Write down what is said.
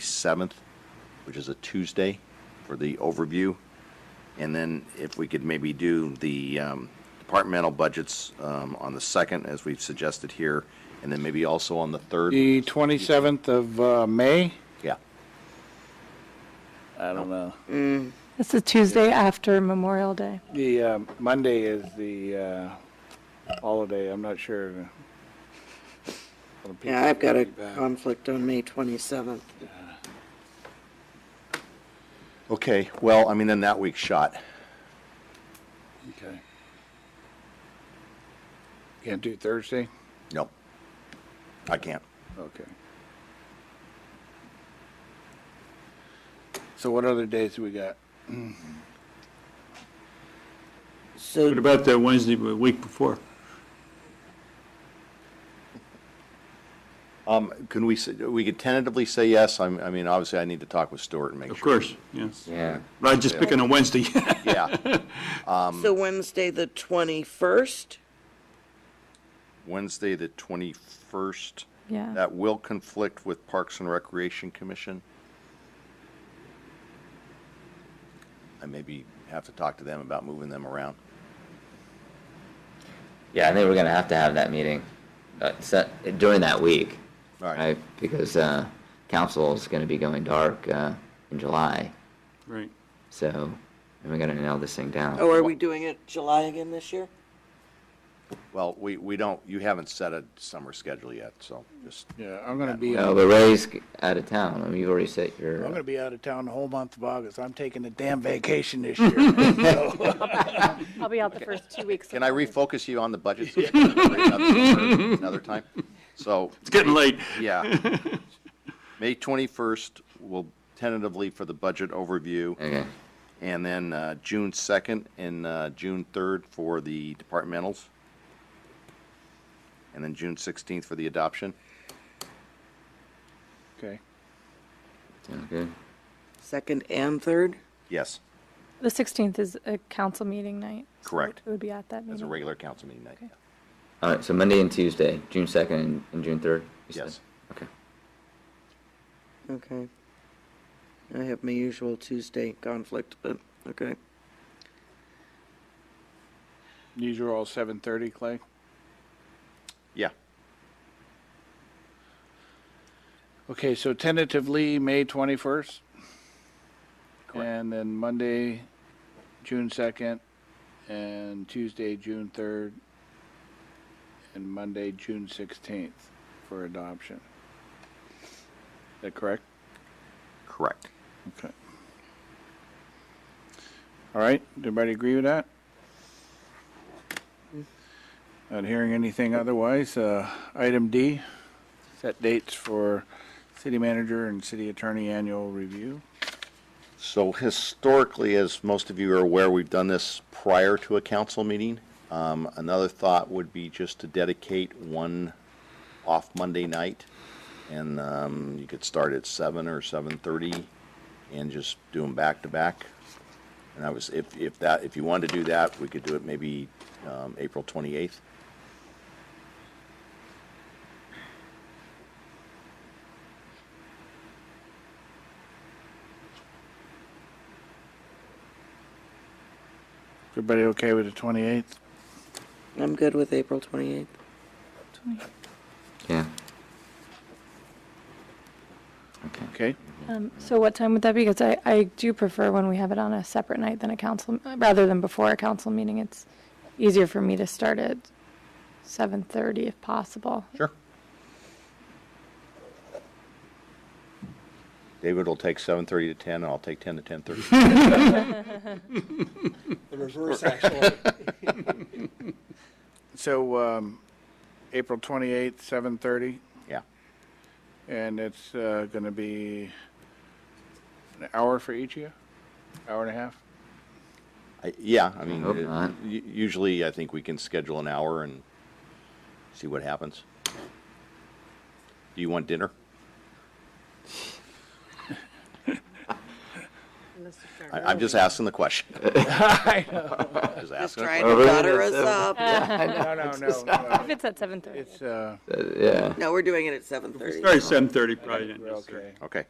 27th, which is a Tuesday, for the overview. And then if we could maybe do the um, departmental budgets um, on the 2nd, as we've suggested here, and then maybe also on the 3rd. The 27th of uh, May? Yeah. I don't know. It's the Tuesday after Memorial Day. The uh, Monday is the uh, holiday, I'm not sure. Yeah, I've got a conflict on May 27th. Okay, well, I mean, then that week's shot. Okay. Can't do Thursday? No, I can't. Okay. So what other days we got? What So about that Wednesday, the week before? Um, Can we, say- we could tentatively say yes. I'm- I mean, obviously, I need to talk with Stuart and make Of sure. course, yes. Yeah. But I was just picking a Wednesday. Yeah. so Wednesday, the 21st? Wednesday, the 21st. Yeah. That will conflict with Parks and Recreation Commission. I maybe have to talk to them about moving them around. Yeah, I think we're gonna have to have that meeting uh, set during that week, All right. right? Because uh, council is gonna be going dark uh, in July, Right. so and we're gonna nail this thing down. Oh, are we doing it July again this year? Well, we, we don't, you haven't set a summer schedule yet, so just, Yeah, I'm going to be, No, I'm but Ray's out of town. I mean, you already set your. going to be out of town the whole month of August. I'm taking a damn vacation this year. So, I'll be out the first two weeks. can I refocus you on the budget? so we can bring it up for Another time? So, It's getting late. yeah. May 21st, we'll tentatively for the budget overview. Okay. And then uh, June 2nd and uh, June 3rd for the departmentals. And then June 16th for the adoption. okay. Sounds good. Second and third? Yes, The 16th is a council meeting night. so Correct. It would be at that meeting. as a regular council meeting night. All right. So Monday and Tuesday, June second and, and June third. Yes. Okay. Okay. I have my usual Tuesday conflict, but, okay. These are all 7:30, Clay? Yeah, Okay, so tentatively, May 21st? And then Monday, June 2nd, and Tuesday, June 3rd, and Monday, June 16th for adoption. Is that correct? correct. Okay. All right, everybody agree with that? Not hearing anything otherwise, uh, item D, set dates for city manager and city attorney annual review. So historically, as most of you are aware, we've done this prior to a council meeting. Um, Another thought would be just to dedicate one off Monday night. And um, you could start at seven or 7:30 and just do them back to back. And I was, if, if that, if you wanted to do that, we could do it maybe um, April 28th. Everybody okay with the 28th? I'm good with April 28th. Yeah. Okay. Okay, Um, So what time would that be? Because I, I do prefer when we have it on a separate night than a council, rather than before a council meeting. It's easier for me to start at 7:30 if possible. Sure. David will take 7:30 to 10, and I'll take 10 to 10:30. so, um, April 28th, 7:30, Yeah, and it's, uh, gonna be an hour for each of you? Hour and a half? I- yeah, I mean, hope it- not. u- usually I think we can schedule an hour and see what happens. Do you want dinner? I- I'm just asking the question. Just Just asking a trying question. to butter us up. No, no, no, no, If it's at 7:30. it's, uh, Uh, yeah. No, we're doing it at 7:30. Sorry, seven thirty probably. we're okay. Okay,